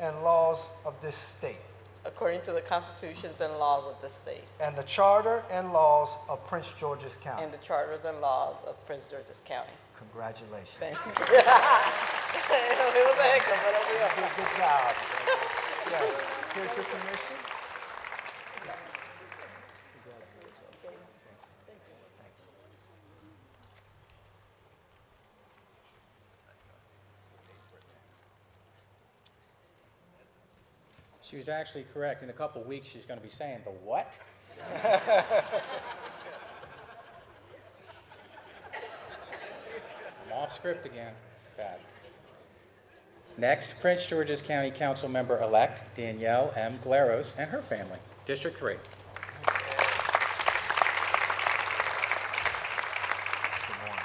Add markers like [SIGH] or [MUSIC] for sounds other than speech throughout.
and laws of this state, according to the constitutions and laws of the state, and the charter and laws of Prince George's County. and the charters and laws of Prince George's [LAUGHS] County. Congratulations. Thank you. It was a hiccup, but I'll be up. Good, good job. Yes. Here's your permission. She was actually correct. In a couple weeks, she's going to be saying, The what? I'm off script again. Bad. Next, Prince George's County Council member elect Danielle M. Glaros and her family, District 3. Good morning.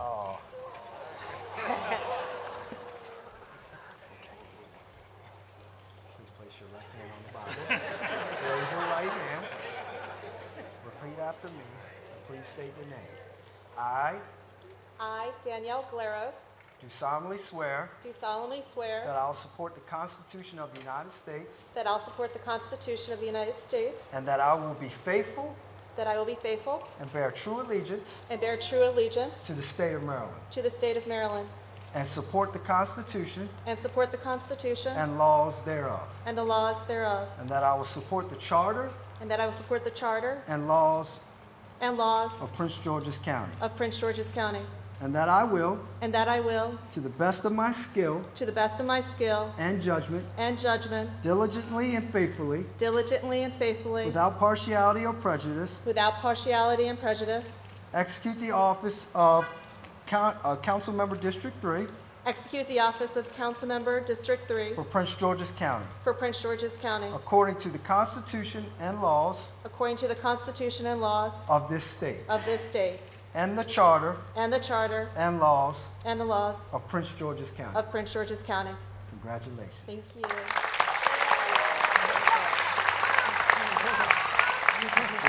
Oh. [LAUGHS] Please place your left hand on the Bible. Raise your right hand. Repeat after me. and Please state your name. I I, Danielle Glaros, do solemnly swear do solemnly that swear I will support the Constitution of the United States that I'll support the Constitution of the United States, and that I will be faithful that I will be faithful and bear true allegiance and bear true allegiance to the state of Maryland to the state of Maryland, and support the Constitution and support the Constitution and laws thereof, and the laws thereof, and that I will support the charter and that I will support the charter and laws and laws of Prince George's County, of Prince George's County, and that I will, and that I will, to the best of my skill to the best of my skill and judgment, and judgment, diligently and faithfully, diligently and faithfully, without partiality or prejudice, without partiality and prejudice, execute the office of Coun- uh, Council Member District 3 execute the office of Councilmember District 3 for Prince George's County, for Prince George's County, according to the Constitution and laws according to the Constitution and laws of this state, of this state and the charter and the charter and laws and the laws of Prince George's County. of Prince George's County. Congratulations. Thank you. We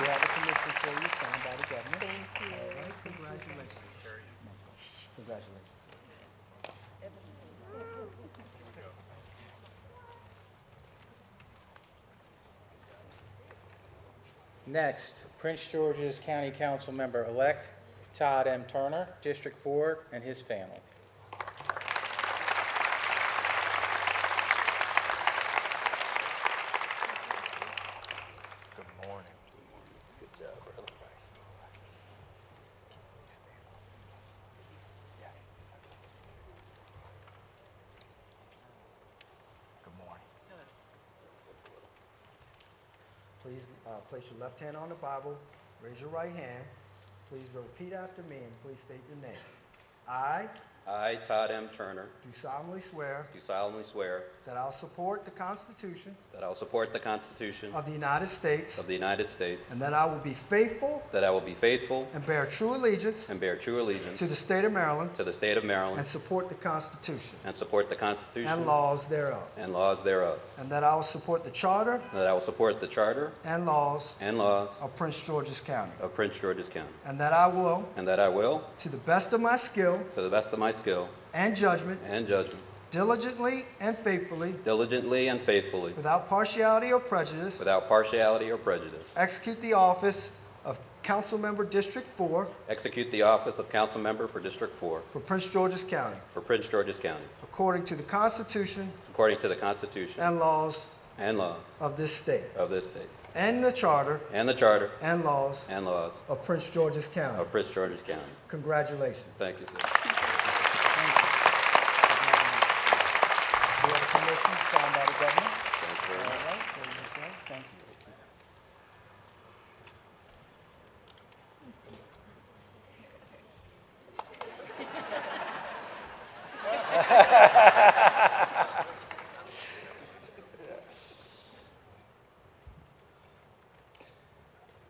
have a commission for you, signed by the governor. Thank you. Congratulations. Congratulations. Next, Prince George's County Council member-elect Todd M. Turner, District 4, and his family. Good morning. Good morning. Please uh, place your left hand on the Bible, raise your right hand. Please repeat after me and please state your name. I I, Todd M. Turner, do solemnly swear do solemnly swear that I'll support the Constitution that I will support the Constitution of the United States of the United States, and that I will be faithful that I will be faithful and bear true allegiance and bear true allegiance To the state of Maryland. to the state of And Maryland, support the Constitution. and support the Constitution And laws thereof. and laws thereof, And that I will support the charter and that I will support the Charter and laws and laws of Prince George's County. of Prince George's County, And that I will, and that I will, to the best of my skill to the best of my skill and judgment, and judgment, diligently and faithfully, diligently and faithfully, without partiality or prejudice, without partiality or prejudice, execute the office of Councilmember District 4 execute the office of Council Member for District 4 for Prince George's County, for Prince George's County, according to the Constitution according to the Constitution and laws and laws of this state, of this state, and the charter and the Charter and laws and laws of Prince George's County. of Prince George's County. Congratulations. Thank you, sir. We have a commission signed by the governor. Thank you.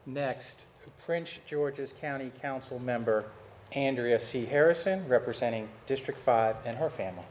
Next, Prince George's County Council member Andrea C. Harrison, representing District 5 and her family.